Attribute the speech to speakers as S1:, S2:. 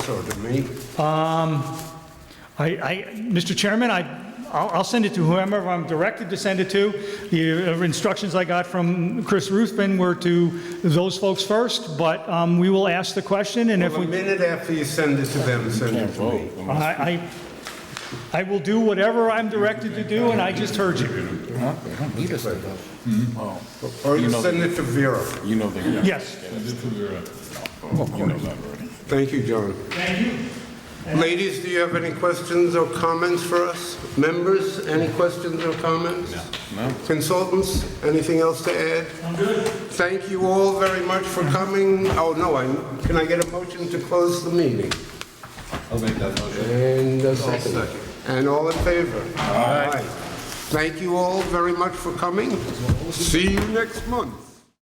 S1: or to me?
S2: I, I, Mr. Chairman, I, I'll, I'll send it to whoever I'm directed to send it to. The uh, instructions I got from Chris Ruthven were to those folks first, but um, we will ask the question, and if
S1: A
S2: we,
S1: minute after you send it to them, send it to me.
S2: I, I, I will do whatever I'm directed to do, and I just heard you.
S1: Mm-hmm. Or you send it to Vera.
S3: You know they
S2: Yes.
S3: You know that already.
S1: Thank you, John.
S2: Thank you.
S1: Ladies, do you have any questions or comments for us? Members, any questions or comments? No. Consultants, anything else to add? I'm good. Thank you all very much for coming. Oh, no, I, can I get a motion to close the meeting? And a second. And all in favor? Aye. Thank you all very much for coming. See you next month.